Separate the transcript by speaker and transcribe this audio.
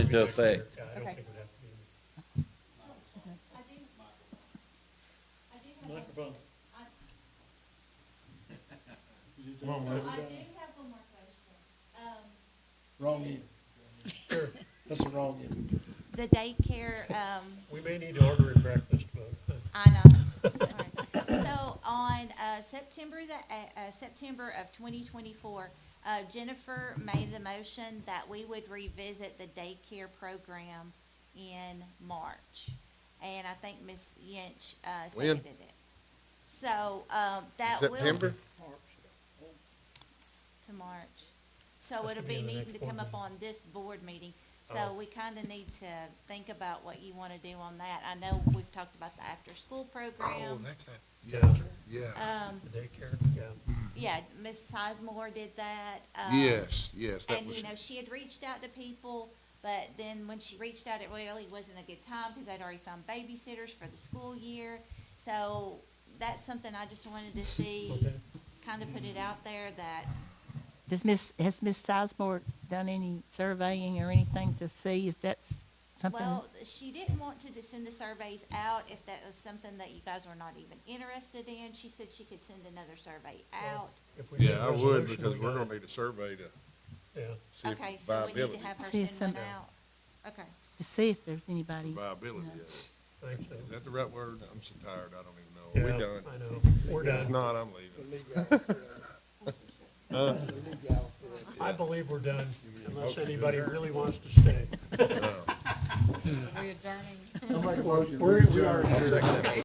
Speaker 1: into effect.
Speaker 2: I don't think it would have to be. Microphone. You just-
Speaker 3: Come on, Wes.
Speaker 4: I do have one more question. Um,
Speaker 3: Wrong end. That's the wrong end.
Speaker 4: the daycare, um,
Speaker 2: We may need to order a breakfast, but. uh,
Speaker 4: I know. Sorry. So on, uh, September the, uh, uh, September of twenty twenty-four, uh, Jennifer made the motion that we would revisit the daycare program in March. And I think Ms. Yinch, uh,
Speaker 5: When?
Speaker 4: seconded it. So, um, that will.
Speaker 5: September?
Speaker 4: to March. So
Speaker 2: That's
Speaker 4: it'll
Speaker 2: gonna
Speaker 4: be
Speaker 2: be the
Speaker 4: needing
Speaker 2: next
Speaker 4: to
Speaker 2: board
Speaker 4: come up
Speaker 2: meeting.
Speaker 4: on this board meeting.
Speaker 2: Oh.
Speaker 4: So we kinda need to think about what you wanna do on that. I know we've talked about the after-school program.
Speaker 5: that's Oh, that.
Speaker 2: Yeah.
Speaker 5: Yeah.
Speaker 4: Um,
Speaker 2: The daycare, yeah.
Speaker 4: yeah, Ms. Sizemore did that. um,
Speaker 5: Yes, yes, that
Speaker 4: And, you
Speaker 5: was,
Speaker 4: know, she had reached out to people, but then when she reached out, it really wasn't a good time because I'd already found babysitters for the school year. So that's something I just wanted to see,
Speaker 2: Okay.
Speaker 4: kinda put it out there that
Speaker 6: Does Miss, has Miss Sizemore done any surveying or anything to see if that's something?
Speaker 4: Well, she didn't want to just send the surveys out if that was something that you guys were not even interested in. She said she could send another survey out.
Speaker 2: If we need a
Speaker 5: yeah, I would,
Speaker 2: resolution,
Speaker 5: because
Speaker 2: we
Speaker 5: we're
Speaker 2: got
Speaker 5: gonna need a survey to
Speaker 2: it. Yeah.
Speaker 5: see if
Speaker 4: Okay, so we need
Speaker 5: viability,
Speaker 4: to have
Speaker 6: See
Speaker 4: her
Speaker 6: if
Speaker 4: send one
Speaker 6: some-
Speaker 4: out. Okay,
Speaker 6: To see if there's anybody,
Speaker 5: viability
Speaker 6: Yeah.
Speaker 5: of it.
Speaker 2: Thanks, Dave.
Speaker 5: Is that the right word? I'm so tired, I don't even know. We're
Speaker 2: Yeah,
Speaker 5: done.
Speaker 2: I know, we're
Speaker 5: If
Speaker 2: done.
Speaker 5: not, I'm
Speaker 3: The
Speaker 5: leaving.
Speaker 3: legal for that. The legal for that.
Speaker 2: I believe we're done, unless
Speaker 5: Okay.
Speaker 2: anybody really wants to stay.
Speaker 5: No.
Speaker 7: We're adjourning.
Speaker 3: I'm like, well,
Speaker 2: We're- we are-
Speaker 3: you're-